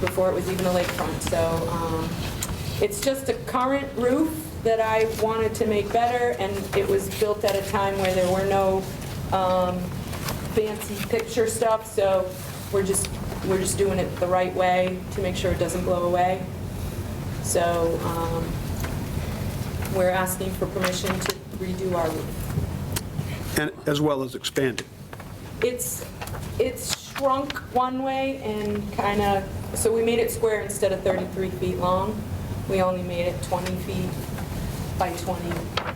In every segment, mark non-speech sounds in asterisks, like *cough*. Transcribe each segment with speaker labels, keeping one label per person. Speaker 1: before it was even a lakefront. So um, it's just a current roof that I wanted to make better, and it was built at a time where there were no um, fancy picture stuff, so we're just, we're just doing it the right way to make sure it doesn't blow away. So um, we're asking for permission to redo our roof.
Speaker 2: and as well as expanded.
Speaker 1: It's, it's shrunk one way and kind of, so we made it square instead of 33 feet long. We only made it 20 feet by 20,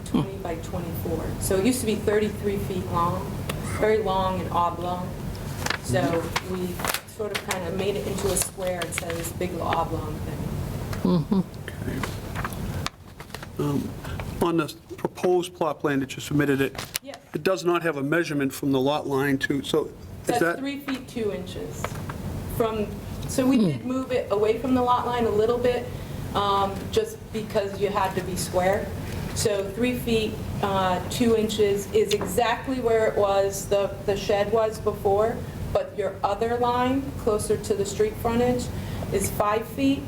Speaker 1: 20 by 24. So it used to be 33 feet long, very long and oblong. So we sort of kind of made it into a square instead of this big oblong thing.
Speaker 2: On the proposed plot plan that you submitted, it,
Speaker 1: Yes.
Speaker 2: it does not have a measurement from the lot line to, so is
Speaker 1: That's
Speaker 2: that?
Speaker 1: three feet, two inches from, so we did move it away from the lot line a little bit, um, just because you had to be square. So three feet, uh, two inches is exactly where it was, the the shed was before, but your other line, closer to the street frontage, is five feet,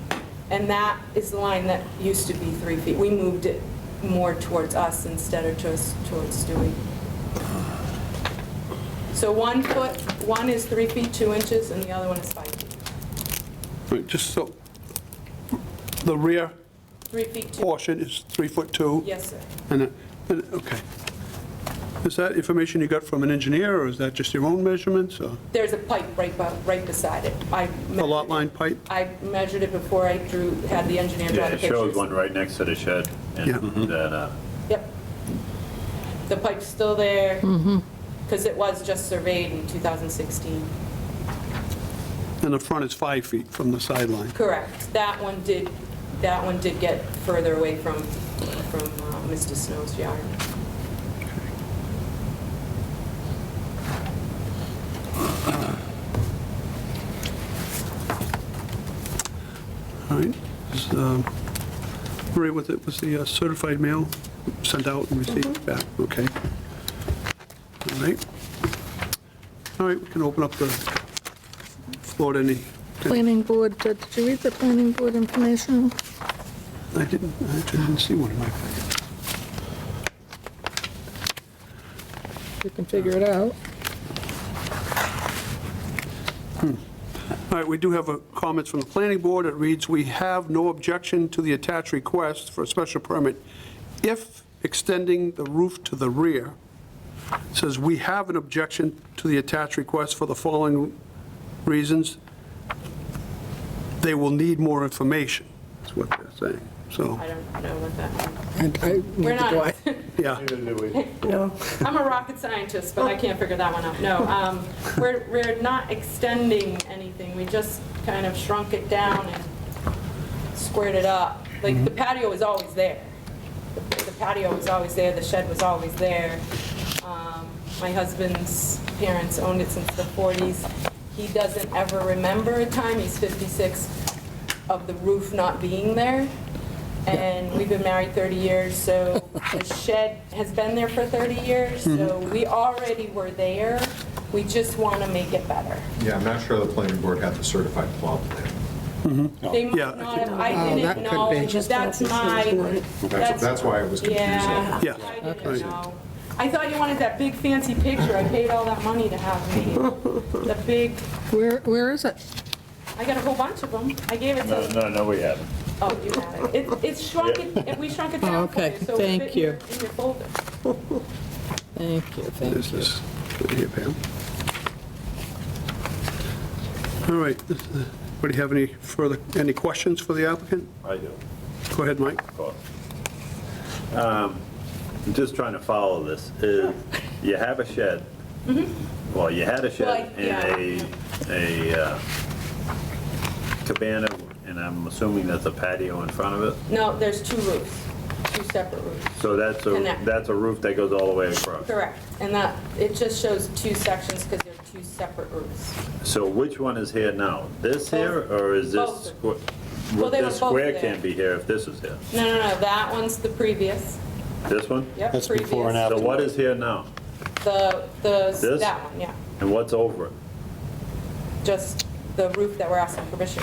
Speaker 1: and that is the line that used to be three feet. We moved it more towards us instead of towards towards Stewie. So one foot, one is three feet, two inches, and the other one is five feet.
Speaker 2: Right, Just so, the rear
Speaker 1: Three feet, two,
Speaker 2: portion is three foot two?
Speaker 1: yes, sir.
Speaker 2: And, it- and it- okay. Is that information you got from an engineer, or is that just your own measurements, or
Speaker 1: There's a pipe right, bu- right beside it. I
Speaker 2: a lot
Speaker 1: measured it.
Speaker 2: line pipe?
Speaker 1: I measured it before I drew, had the engineer
Speaker 3: Yeah,
Speaker 1: draw the
Speaker 3: it
Speaker 1: pictures.
Speaker 3: shows one right next to the shed, and
Speaker 2: Yeah. Mhm.
Speaker 3: that, uh,
Speaker 1: Yep. The pipe's still there, because it was just surveyed in 2016.
Speaker 2: And the front is five feet from the sideline.
Speaker 1: Correct. That one did, that one did get further away from, from uh, Mr. Snow's yard.
Speaker 2: All right. Is, um, Maria, was it, was the uh, certified mail sent out and received back? Okay. All right. All right, we can open up the floor to any,
Speaker 4: Planning board, uh, did you read the planning board information?
Speaker 2: I didn't, I actually didn't see one in my packet.
Speaker 4: You can figure it out.
Speaker 2: All right, we do have a comments from the planning board. It reads, "We have no objection to the attached request for a special permit if extending the roof to the rear." It Says, "We have an objection to the attached request for the following reasons. They will need more information," is what they're saying. So,
Speaker 1: I don't know what that means.
Speaker 5: And I
Speaker 1: We're
Speaker 5: neither do I.
Speaker 1: *laughs* not,
Speaker 2: yeah,
Speaker 5: No.
Speaker 1: *laughs* I'm a rocket scientist, but I can't figure that one out. No, um, we're, we're not extending anything. We just kind of shrunk it down and squared it up. Like, the patio was always there. The the patio was always there, the shed was always there. Um, My husband's parents owned it since the 40s. He doesn't ever remember a time, he's 56, of the roof not being there. And we've been married 30 years, so the shed has been there for 30 years, so we already were there. We just want to make it better.
Speaker 6: Yeah, I'm not sure the planning board had the certified plot plan.
Speaker 1: They might
Speaker 2: Yeah, I
Speaker 1: not have,
Speaker 5: Oh,
Speaker 1: I
Speaker 5: that
Speaker 1: didn't
Speaker 5: could
Speaker 1: know,
Speaker 5: be. Just
Speaker 1: that's
Speaker 5: don't
Speaker 1: my,
Speaker 5: confuse
Speaker 6: That's, that's why it was
Speaker 1: yeah.
Speaker 6: confusing.
Speaker 2: Yeah,
Speaker 1: I didn't
Speaker 2: okay.
Speaker 1: know. I thought you wanted that big fancy picture, I paid all that money to have
Speaker 5: *laughs*
Speaker 1: made. The big,
Speaker 4: Where, where is it?
Speaker 1: I got a whole bunch of them, I gave it
Speaker 3: no,
Speaker 1: to,
Speaker 3: no, no, we haven't.
Speaker 1: oh, you had it. It- It's shrunk, it- we shrunk it down for you,
Speaker 5: Oh, Okay,
Speaker 1: so it
Speaker 5: thank
Speaker 1: fit in your-
Speaker 5: you.
Speaker 1: in your folder.
Speaker 5: Thank you, thank
Speaker 2: this
Speaker 5: you.
Speaker 2: is, here, Pam. All right, this- uh, anybody have any further, any questions for the applicant?
Speaker 3: I do,
Speaker 2: Go ahead, Mike.
Speaker 3: of course. Um, I'm just trying to follow this,
Speaker 1: *laughs*
Speaker 3: is, you have a shed, well, you had a shed
Speaker 1: Mm-hmm. Well, yeah.
Speaker 3: and a, a uh, cabana, and I'm assuming that's a patio in front of it,
Speaker 1: No, there's two roofs, two separate roofs.
Speaker 3: so that's
Speaker 1: And
Speaker 3: a,
Speaker 1: that-
Speaker 3: that's a roof that goes all the way across.
Speaker 1: Correct, and that, it just shows two sections because they're two separate roofs.
Speaker 3: So which one is here now? This here, or is this?
Speaker 1: Both.
Speaker 3: squ-
Speaker 1: Well, they were
Speaker 3: This
Speaker 1: both
Speaker 3: square
Speaker 1: there.
Speaker 3: can't be here if this is here.
Speaker 1: No, no, no, that one's the previous,
Speaker 3: This one?
Speaker 1: yep, previous.
Speaker 7: That's before and after.
Speaker 3: So what is here now?
Speaker 1: The, the,
Speaker 3: This?
Speaker 1: that one, yeah,
Speaker 3: And what's over it?
Speaker 1: just the roof that we're asking permission